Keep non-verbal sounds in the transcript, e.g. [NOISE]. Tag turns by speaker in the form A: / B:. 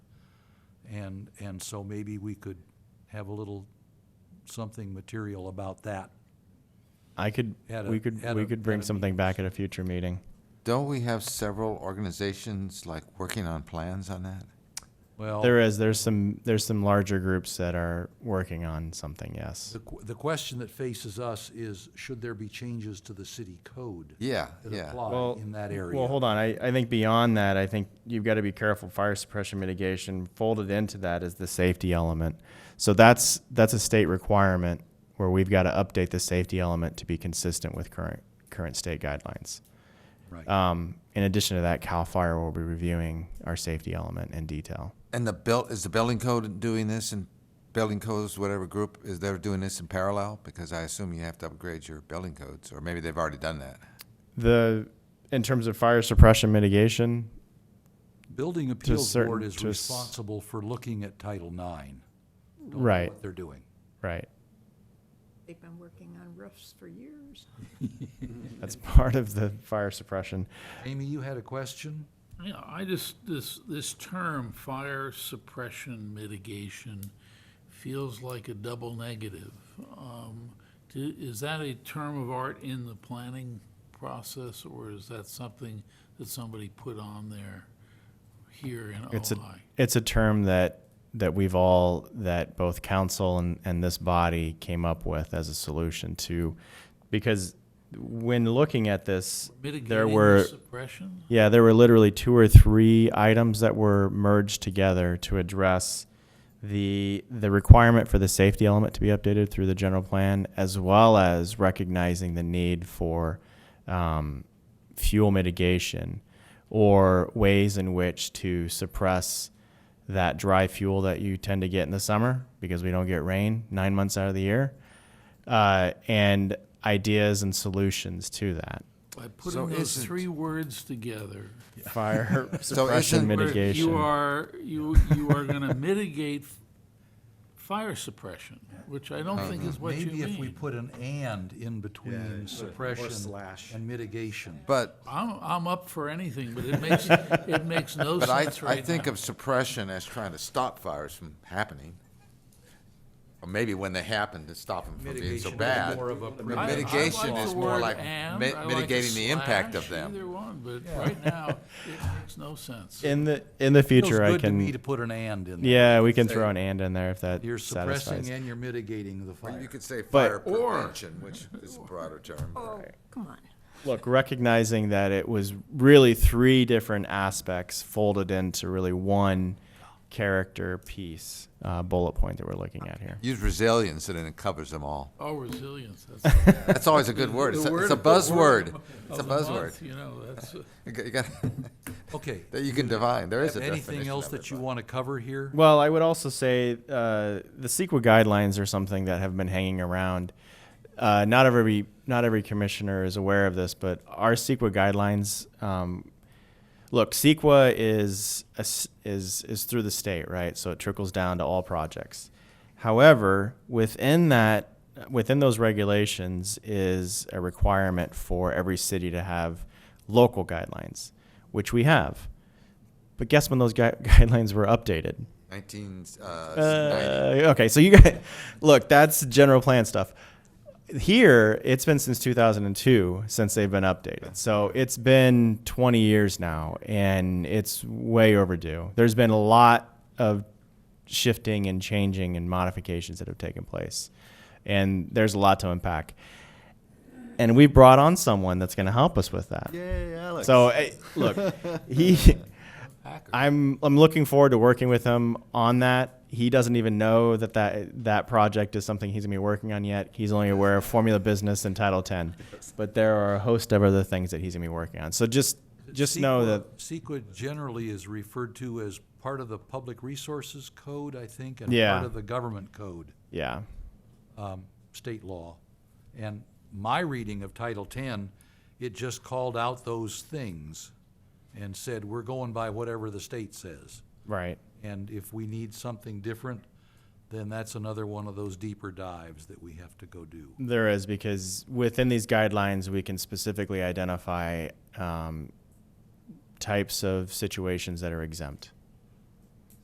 A: And, and so maybe we could have a little something material about that.
B: I could,
A: At a-
B: we could,
A: at
B: we
A: a-
B: could
A: at
B: bring
A: a
B: something back at a future meeting.
C: Don't we have several organizations like working on plans on that?
A: Well,
B: There is, there's some, there's some larger groups that are working on something, yes.
A: the, qu- the question that faces us is, should there be changes to the city code?
C: Yeah,
A: That
C: yeah.
A: apply in that area?
B: Well, hold on. I, I think beyond that, I think you've got to be careful. Fire suppression mitigation folded into that is the safety element. So that's, that's a state requirement where we've got to update the safety element to be consistent with current, current state guidelines.
A: Right,
B: Um, in addition to that, CAL FIRE will be reviewing our safety element in detail.
C: And the built, is the building code doing this and building codes, whatever group, is they're doing this in parallel? Because I assume you have to upgrade your building codes, or maybe they've already done that.
B: The, in terms of fire suppression mitigation,
A: Building Appeals Board
B: certain-
A: is
B: to s-
A: responsible for looking at Title IX. Don't know
B: Right.
A: What they're doing.
B: right,
D: They've been working on roofs for years.
B: that's [LAUGHS] part of the fire suppression.
A: Amy, you had a question?
E: Yeah, I just, this, this term, fire suppression mitigation, feels like a double negative. Um, do- Is that a term of art in the planning process, or is that something that somebody put on there here in
B: It's a,
E: Ojai?
B: it's a term that, that we've all, that both council and, and this body came up with as a solution to, because when looking at this, there
E: Mitigating
B: were.
E: the suppression?
B: Yeah, there were literally two or three items that were merged together to address the the requirement for the safety element to be updated through the general plan, as well as recognizing the need for um, fuel mitigation or ways in which to suppress that dry fuel that you tend to get in the summer because we don't get rain nine months out of the year, uh, and ideas and solutions to that.
E: By
C: So
E: putting those
C: isn't-
E: three words together,
B: Fire suppression
C: isn't-
E: where
B: mitigation.
E: You are, you, you are gonna mitigate
A: [LAUGHS]
E: fire suppression, which I don't think is what you mean.
A: Uh-huh. Maybe if we put an "and" in between suppression
F: slash.
A: and mitigation.
C: But,
E: I'm, I'm up for anything, but it makes, it makes no
C: but I,
E: sense right
C: I
E: now.
C: think of suppression as trying to stop fires from happening. Or maybe when they happen, to stop them from being
A: Mitigation
C: so
A: is
C: bad.
A: more of a
C: But
A: preventive
C: Mitigation
E: I like
C: is
E: the
C: more
E: word
C: like
E: and,
C: mi-
E: I like a
C: mitigating the impact of
E: slash, Either
C: them.
E: one, but right now, it makes no sense.
B: In the in the
A: Feels
B: future, I
A: good to me to
B: can.
A: put an "and" in there.
B: Yeah, we can throw an and in there if that
A: You're suppressing
B: satisfies.
A: and you're mitigating the
C: Or you
A: fire.
C: could say
B: But-
C: fire prevention, which is a broader term.
D: Oh, come on.
B: Look, recognizing that it was really three different aspects folded into really one character piece uh, bullet point that we're looking at here.
C: Use resilience and then it covers them all.
E: Oh, resilience, that's.
C: That's always a good
E: the-
C: word. It's
E: the
C: a, it's a
E: of the- word
C: buzzword.
E: of
C: It's a
E: the month,
C: buzzword.
E: You know, that's, uh,
C: You got- [LAUGHS] you got-
A: Okay.
C: That you can define. There is a definition.
A: Anything else
C: of it,
A: that you
C: but-
A: want to cover here?
B: Well, I would also say uh, the CEQA guidelines are something that have been hanging around. Uh, not every not every commissioner is aware of this, but our CEQA guidelines. Um, look, CEQA is a s is is through the state, right? So it trickles down to all projects. However, within that within those regulations is a requirement for every city to have local guidelines, which we have. But guess when those gui- [LAUGHS] guidelines were updated?
C: Nineteen, uh,
B: Uh, okay, so you guys, [LAUGHS] look, that's general plan stuff. Here, it's been since 2002 since they've been updated. So it's been 20 years now, and it's way overdue. There's been a lot of shifting and changing and modifications that have taken place, and there's a lot to unpack. And we brought on someone that's going to help us with that.
F: Yay, Alex.
B: So eh, look, he,
E: Hacker.
B: I'm I'm looking forward to working with him on that. He doesn't even know that that, that project is something he's gonna be working on yet. He's only aware of Formula Business and Title Ten, but there are a host of other things that he's gonna be working on. So just just know that
A: CEQA generally is referred to as part of the Public Resources Code, I think, and
B: Yeah.
A: part of the Government Code,
B: yeah,
A: um, state law. And my reading of Title X, it just called out those things and said, we're going by whatever the state says.
B: right.
A: And if we need something different, then that's another one of those deeper dives that we have to go do.
B: There is because within these guidelines we can specifically identify um, types of situations that are exempt.